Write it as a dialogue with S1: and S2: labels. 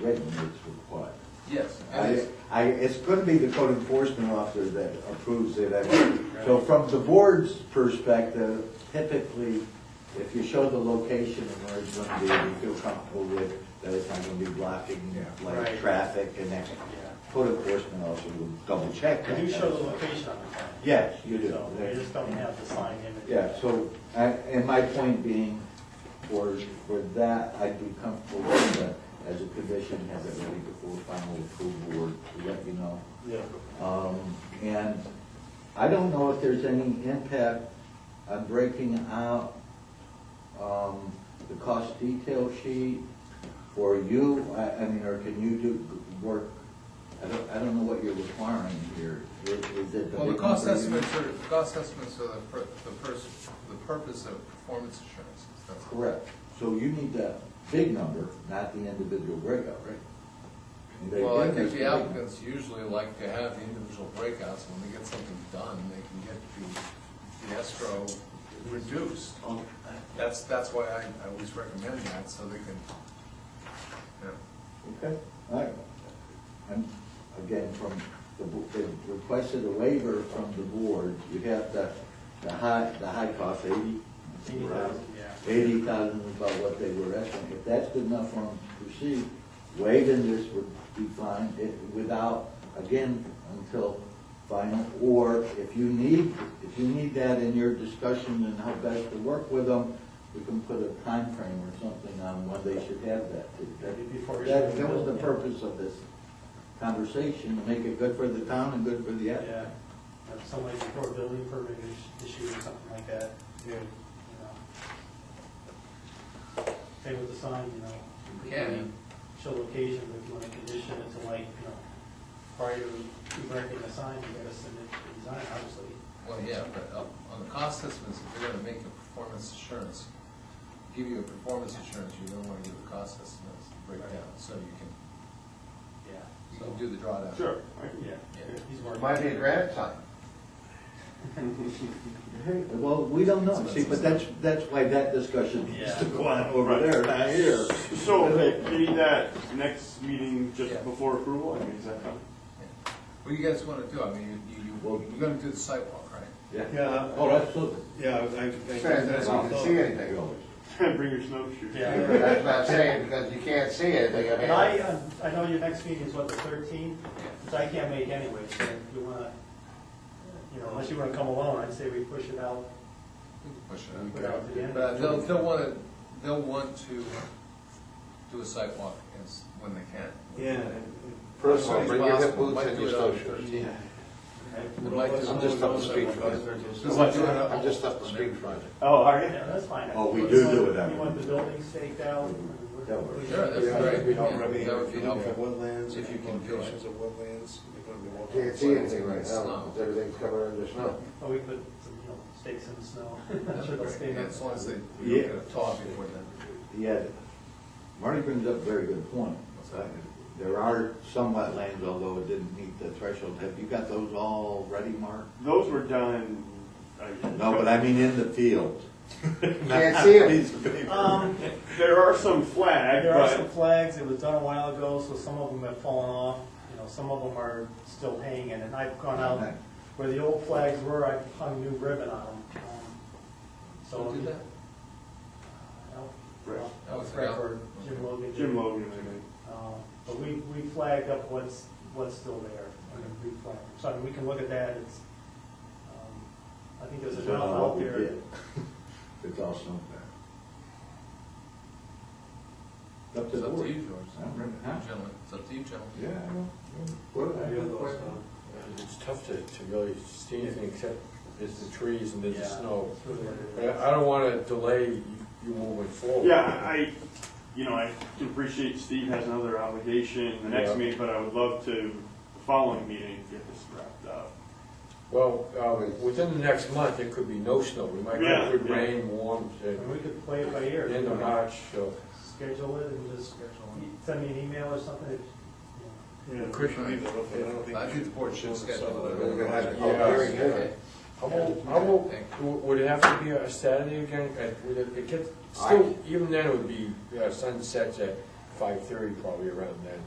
S1: written is required.
S2: Yes.
S3: Oh,
S1: I, I, it's gonna be the code enforcement officer that approves it. I mean, So from the board's perspective, typically, if you show the location and where it's gonna be, you feel comfortable with that it's not gonna be blocking
S4: Yeah.
S1: like
S3: Right.
S1: traffic and that. Code enforcement officer will double check
S3: I
S1: that.
S3: do show the location on the plan.
S1: Yes, you do.
S3: So
S1: There-
S3: they just don't have the sign image.
S1: Yeah, so, I- and my point being, for, for that, I'd be comfortable with that as a condition, have it ready before final approval or to let you know.
S3: Yeah.
S1: Um, And I don't know if there's any impact on breaking out um, the cost detail sheet for you, I, I mean, or can you do g- work? I don't, I don't know what you're requiring here. Is is it the?
S2: Well, the
S1: big
S2: cost
S1: number you-
S2: estimates are, the cost estimates are the, pur- the pers, the purpose of performance assurances, that's correct.
S1: Correct. So you need that big number, not the individual breakout, right? And they
S2: Well, I
S1: did make
S2: think the
S1: big number.
S2: applicants usually like to have the individual breakouts, when they get something done, they can get the, the escrow reduced. That's, that's why I, I always recommend that, so they can, yeah.
S1: Okay, all right. And again, from the, bo- they requested a waiver from the board, you have the, the high, the high cost, eighty?
S3: Eighty thousand, yeah.
S1: Eighty thousand is about what they were asking. If that's good enough for them to proceed, waiving this would be fine, it, without, again, until final, or if you need, if you need that in your discussion and how best to work with them, we can put a time frame or something on when they should have that.
S3: Maybe before you-
S1: That, that was the purpose of this conversation, to make it good for the town and good for the applicant.
S3: Yeah. If Somebody before a building permit is issued or something like that. Yeah. Same with the sign, you know. if you
S2: Yeah.
S3: Show location, but if you want to condition it to like, you know, prior to erecting a sign, you gotta submit the design, obviously.
S2: Well, yeah, but uh, on the cost estimates, if you're gonna make a performance assurance, give you a performance assurance, you're gonna wanna give the cost estimates breakdown, so you can,
S3: Yeah.
S2: you can do the drawdown.
S3: Yeah.
S2: Yeah.
S3: He's working.
S4: Might be a grant sign.
S1: Well, we don't know, see, but that's, that's why that discussion needs to go on over there, not here.
S5: So may- maybe that next meeting
S2: Yeah.
S5: just before approval, I mean, is that coming?
S2: Yeah. What do you guys wanna do? I mean, you, you, you're gonna do the sidewalk, right?
S1: Yeah,
S6: Yeah,
S1: oh, absolutely.
S6: yeah, I, I.
S4: Says that you can see anything.
S5: Bring your snowshoes.
S3: Yeah.
S4: But That's not saying because you can't see anything,
S3: And
S4: I
S3: I,
S4: mean.
S3: uh, I know your next meeting is what, the thirteenth, which I can't make anyway, so if you wanna, you know, unless you wanna come alone, I'd say we push it out.
S2: We can Push it.
S3: Put it out to the end.
S2: But uh, they'll, they'll wanna, they'll want to do a sidewalk as, when they can.
S6: Yeah.
S4: Personally, bring your hip boots and
S2: Might do
S4: your
S2: it on
S4: snowshoes.
S6: Yeah.
S2: Would like to-
S4: I'm just up the street from
S2: Does
S4: you.
S2: it do it on-
S4: I'm just up the street from you.
S5: Oh, are you?
S3: Yeah, that's fine.
S1: Oh, we do do it that
S3: You
S1: way.
S3: want the building staked out?
S1: That works.
S2: Sure, that's great.
S6: We don't
S2: Yeah,
S6: really,
S2: that would
S6: if
S2: be
S6: you look
S2: helpful.
S6: at woodlands,
S2: If
S6: if
S2: you
S6: you
S2: can do it.
S6: locations of woodlands, you're gonna be walking.
S4: Can't see anything right now,
S2: Snow.
S4: because everything's covered under snow.
S3: Or we put some, you know, stakes in the snow. I'm
S2: That's
S3: sure they'll stay
S2: great. Yeah,
S3: there.
S2: As long as they, you don't get a thaw before then.
S1: Yeah, Marty brings up a very good point. Uh, There are some wetlands, although it didn't meet the threshold, have you got those all ready, Mark?
S5: Those were done. I-
S1: No, but I mean in the field.
S4: Can't see 'em.
S1: Piece of paper.
S3: Um,
S5: There are some flagged,
S3: there are some
S5: but
S3: flags, it was done a while ago, so some of them have fallen off, you know, some of them are still hanging, and I've gone out
S1: Okay.
S3: where the old flags were, I hung new ribbon on them. So. uh,
S2: Don't do that.
S3: No,
S5: Right.
S3: no,
S2: That was
S3: it's right
S2: out.
S3: for Jim Logan.
S5: Jim Logan, I think.
S3: Uh, But we, we flagged up what's, what's still there. I mean, we flagged, so I mean, we can look at that, it's, um, I think there's
S1: Don't
S3: enough
S1: know what
S3: out
S1: we
S3: there.
S1: did. It's all snow there. Up to
S2: It's
S1: the
S2: up to
S1: board.
S2: you, George.
S1: I don't remember, huh?
S2: Gentlemen, it's up to you, gentlemen.
S1: Yeah, I know. What did I do?
S3: uh,
S7: It's tough to, to really see anything except there's the trees and there's the
S3: Yeah,
S7: snow.
S3: that's really what
S7: I,
S3: it is.
S7: I don't wanna delay you you moving forward.
S5: Yeah, I, you know, I can appreciate Steve has another obligation the next
S7: Yeah.
S5: meeting, but I would love to, the following meeting, get this wrapped up.
S7: Well, uh, within the next month, it could be no snow, we might
S5: Yeah,
S7: get good
S5: yeah.
S7: rain, warm, uh,
S3: And we could play it by ear.
S7: end of March, so.
S3: Schedule it and just send me an email or something. if, you know.
S6: Yeah, the Christian people, but I don't think.
S2: I think the board should schedule it.
S4: We're gonna have a
S7: Yeah.
S4: public hearing here.
S2: Okay.
S7: How about, how about, w- would it have to be a Saturday again, Uh, would it, it gets, still, even then it would be uh, sunsets at five thirty, probably around then.